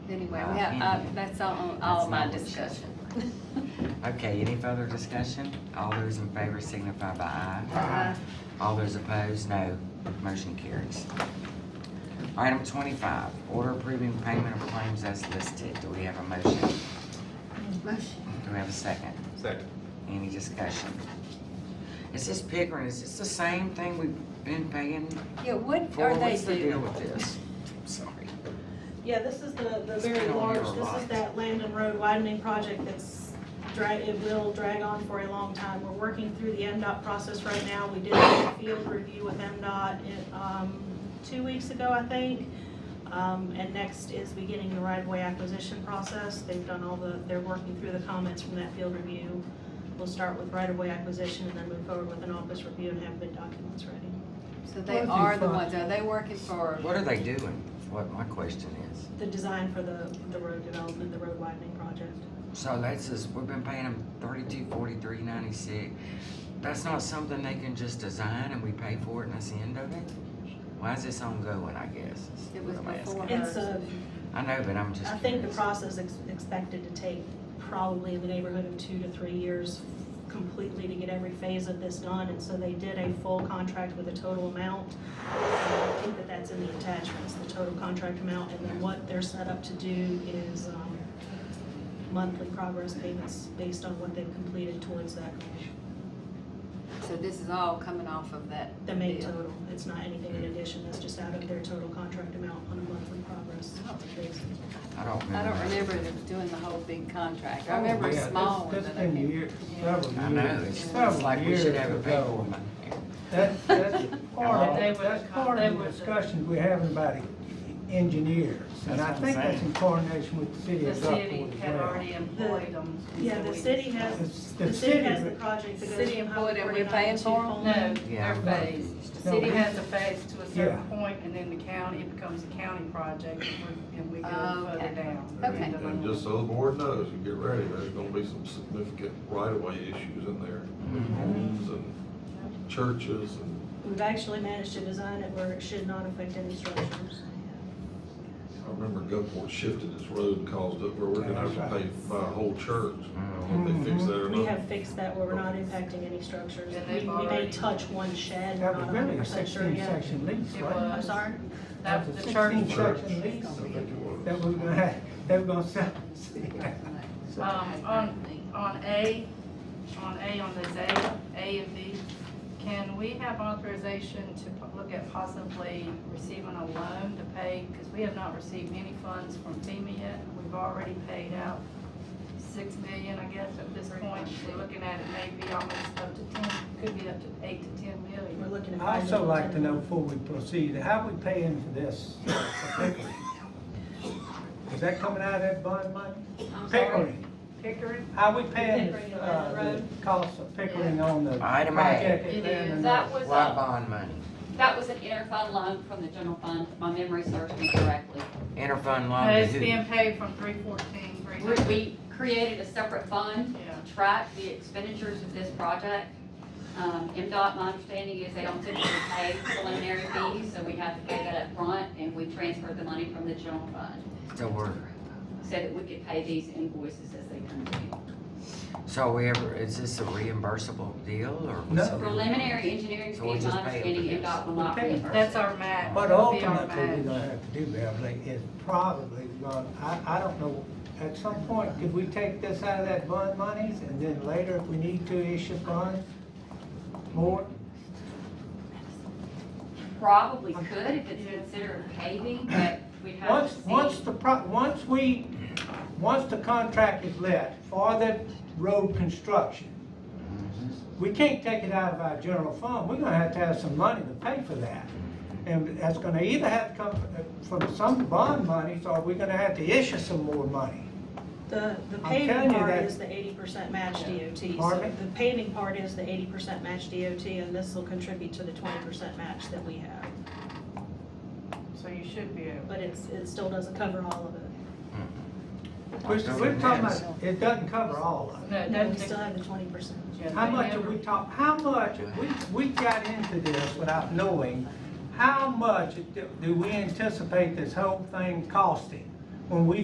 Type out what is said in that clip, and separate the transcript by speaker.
Speaker 1: Well, we have, uh, that's all, all of my discussion.
Speaker 2: Okay, any further discussion? All those in favor signify by aye.
Speaker 1: Uh,
Speaker 2: All those opposed, no. Motion carries. Item twenty-five, order approving payment of claims as listed. Do we have a motion?
Speaker 1: Motion.
Speaker 2: Do we have a second?
Speaker 3: Second.
Speaker 2: Any discussion? Is this Pickering, is this the same thing we've been paying
Speaker 1: Yeah, what
Speaker 2: for?
Speaker 1: are they
Speaker 2: What's the deal
Speaker 1: doing?
Speaker 2: with this? Sorry.
Speaker 4: Yeah, this is the, the
Speaker 2: It's
Speaker 4: very
Speaker 2: been on
Speaker 4: large,
Speaker 2: here a
Speaker 4: this
Speaker 2: lot.
Speaker 4: is that land and road widening project that's drag, it will drag on for a long time. We're working through the MDOT process right now. We did a field review with MDOT, in, um, two weeks ago, I think. Um, and next is beginning the right-of-way acquisition process. They've done all the, they're working through the comments from that field review. We'll start with right-of-way acquisition and then move forward with an office review and have bid documents ready.
Speaker 1: So they are the ones, are they working for,
Speaker 2: What are they doing? Is What my question is.
Speaker 4: The design for the, the road development, the road widening project.
Speaker 2: So that's just, we've been paying them thirty-two, forty-three, ninety-six. That's not something they can just design and we pay for it and that's the end of it? Why is this ongoing, I guess? is
Speaker 1: It was
Speaker 2: what I'm asking.
Speaker 1: before.
Speaker 4: It's a,
Speaker 2: I know, but I'm just
Speaker 4: I think the
Speaker 2: curious.
Speaker 4: process is expected to take probably in the neighborhood of two to three years completely to get every phase of this done, and so they did a full contract with a total amount. I think that that's in the attachments, the total contract amount, and then what they're set up to do is um, monthly progress payments based on what they've completed towards that,
Speaker 1: so this is all coming off of that?
Speaker 4: the main
Speaker 1: deal?
Speaker 4: total. It's not anything in addition, it's just out of their total contract amount on a monthly progress
Speaker 2: Oh,
Speaker 4: basis.
Speaker 2: I don't remember.
Speaker 1: I don't
Speaker 2: that.
Speaker 1: remember them doing the whole big contract. I remember
Speaker 5: Oh, Yeah,
Speaker 1: a small one
Speaker 5: that's-
Speaker 1: that I
Speaker 5: That's been
Speaker 1: think.
Speaker 5: years, several years.
Speaker 2: I know, it's it's
Speaker 5: several
Speaker 2: like we should
Speaker 5: years
Speaker 2: have a pay
Speaker 5: ago.
Speaker 2: for them.
Speaker 5: That, that's part
Speaker 6: They
Speaker 5: of,
Speaker 6: would-
Speaker 5: that's part
Speaker 6: they
Speaker 5: of the
Speaker 6: would-
Speaker 5: discussions we're having about the engineers. And
Speaker 2: That's
Speaker 5: I
Speaker 2: what I'm
Speaker 5: think that's
Speaker 2: saying.
Speaker 5: in coordination with the city
Speaker 6: The
Speaker 5: of
Speaker 6: city
Speaker 5: Gulfport
Speaker 6: had
Speaker 5: as well.
Speaker 6: already employed them.
Speaker 4: Yeah, the city has,
Speaker 5: It's-
Speaker 4: The city has the
Speaker 5: but-
Speaker 4: project that goes
Speaker 1: City
Speaker 4: from
Speaker 1: employed
Speaker 4: Highway
Speaker 1: and we're
Speaker 4: 49
Speaker 1: paying
Speaker 4: to
Speaker 1: for 'em?
Speaker 6: No,
Speaker 2: Yeah,
Speaker 6: they're
Speaker 2: I'm
Speaker 6: phased. The
Speaker 5: No,
Speaker 6: city
Speaker 5: we-
Speaker 6: has a phase to a certain
Speaker 5: Yeah.
Speaker 6: point, and then the county, it becomes a county project, and we- and we go
Speaker 1: Oh, okay.
Speaker 6: further down.
Speaker 1: Okay.
Speaker 6: The
Speaker 3: And just so the board knows, you get ready, there's gonna be some significant right-of-way issues in there.
Speaker 4: Mm-hmm.
Speaker 3: Homes and churches and
Speaker 4: We've actually managed to design it where it should not affect any structures.
Speaker 3: I remember Gulfport shifted its road and caused it where we're gonna have to pay by a whole church. I don't know if they fixed that or
Speaker 4: We
Speaker 3: not.
Speaker 4: have fixed that where we're not impacting any structures.
Speaker 6: And
Speaker 4: We
Speaker 6: they've
Speaker 4: we may
Speaker 6: already-
Speaker 4: touch one shed, we're
Speaker 5: That
Speaker 4: not
Speaker 5: was really a
Speaker 4: 100% sure
Speaker 5: sixteen
Speaker 4: yet.
Speaker 5: section lease,
Speaker 6: It
Speaker 5: right?
Speaker 6: was.
Speaker 4: I'm sorry?
Speaker 6: That was the
Speaker 5: Sixteen
Speaker 6: church.
Speaker 3: church.
Speaker 5: section lease
Speaker 3: I think it was.
Speaker 5: that we're gonna, have- they were gonna sell.
Speaker 6: Um, on, on A, on A, on this A, A and B, can we have authorization to po- look at possibly receiving a loan to pay? Because we have not received any funds from FEMA yet, and we've already paid out six million, I guess, at this point. We're looking at it maybe almost up to ten, could be up to eight to ten
Speaker 4: We're
Speaker 6: million.
Speaker 4: looking at.
Speaker 5: I'd also
Speaker 4: five
Speaker 5: like to know
Speaker 4: different-
Speaker 5: before we proceed, how we paying for this? Is that coming out of that bond money?
Speaker 6: I'm sorry,
Speaker 5: Pickering,
Speaker 6: Pickering?
Speaker 5: how we paying
Speaker 4: Pickering,
Speaker 5: the,
Speaker 4: uh,
Speaker 5: uh, the cost of pickering on the
Speaker 2: Item A.
Speaker 5: project? at
Speaker 7: It
Speaker 5: Lebanon?
Speaker 7: is, that was,
Speaker 2: Why
Speaker 7: a-
Speaker 2: bond money?
Speaker 7: that was an interfund loan from the general fund, if my memory serves me correctly.
Speaker 2: Interfund loan
Speaker 6: No,
Speaker 2: to
Speaker 6: It's
Speaker 2: who?
Speaker 6: being paid from three fourteen, three
Speaker 7: We,
Speaker 6: hundred.
Speaker 7: we created a separate fund to track the expenditures of this project. Um, MDOT, my understanding is they don't typically pay preliminary fees, so we had to pay that up front, and we transferred the money from the general fund
Speaker 2: So we're,
Speaker 7: so that we could pay these invoices as they come due.
Speaker 2: so we ever, is this a reimbursable deal or?
Speaker 5: No.
Speaker 2: something?
Speaker 7: Preliminary engineering
Speaker 2: So we
Speaker 7: fees,
Speaker 2: just
Speaker 7: my
Speaker 2: pay it
Speaker 7: understanding,
Speaker 2: for this.
Speaker 7: MDOT will not
Speaker 5: Okay.
Speaker 7: reimburse.
Speaker 6: That's our match.
Speaker 5: But
Speaker 6: That'll be our
Speaker 5: ultimately, we're
Speaker 6: match.
Speaker 5: gonna have to do, Beverly, is probably, gonna I, I don't know, at some point, could we take this out of that bond monies and then later, if we need to, issue bonds? More?
Speaker 7: Probably could if it's considered paving, but we'd have
Speaker 5: Once,
Speaker 7: to see.
Speaker 5: once the pro, once we, once the contract is let for the road construction, we can't take it out of our general fund, we're gonna have to have some money to pay for that. And that's gonna either have to come uh, from some bond monies, or we're gonna have to issue some more money.
Speaker 4: The, the
Speaker 5: I'm telling
Speaker 4: paving
Speaker 5: you
Speaker 4: part
Speaker 5: that-
Speaker 4: is the eighty percent match DOT. So
Speaker 5: Pardon me?
Speaker 4: The paving part is the eighty percent match DOT, and this will contribute to the twenty percent match that we have.
Speaker 6: So you should be able.
Speaker 4: But it's, it still doesn't cover all of it.
Speaker 5: We're, we're talking about, it doesn't cover all of it.
Speaker 6: No, it
Speaker 4: No,
Speaker 6: doesn't
Speaker 4: we still have the twenty percent.
Speaker 6: take-
Speaker 5: How much have we talked, how much, we, we got into this without knowing, how much do do we anticipate this whole thing costing? When we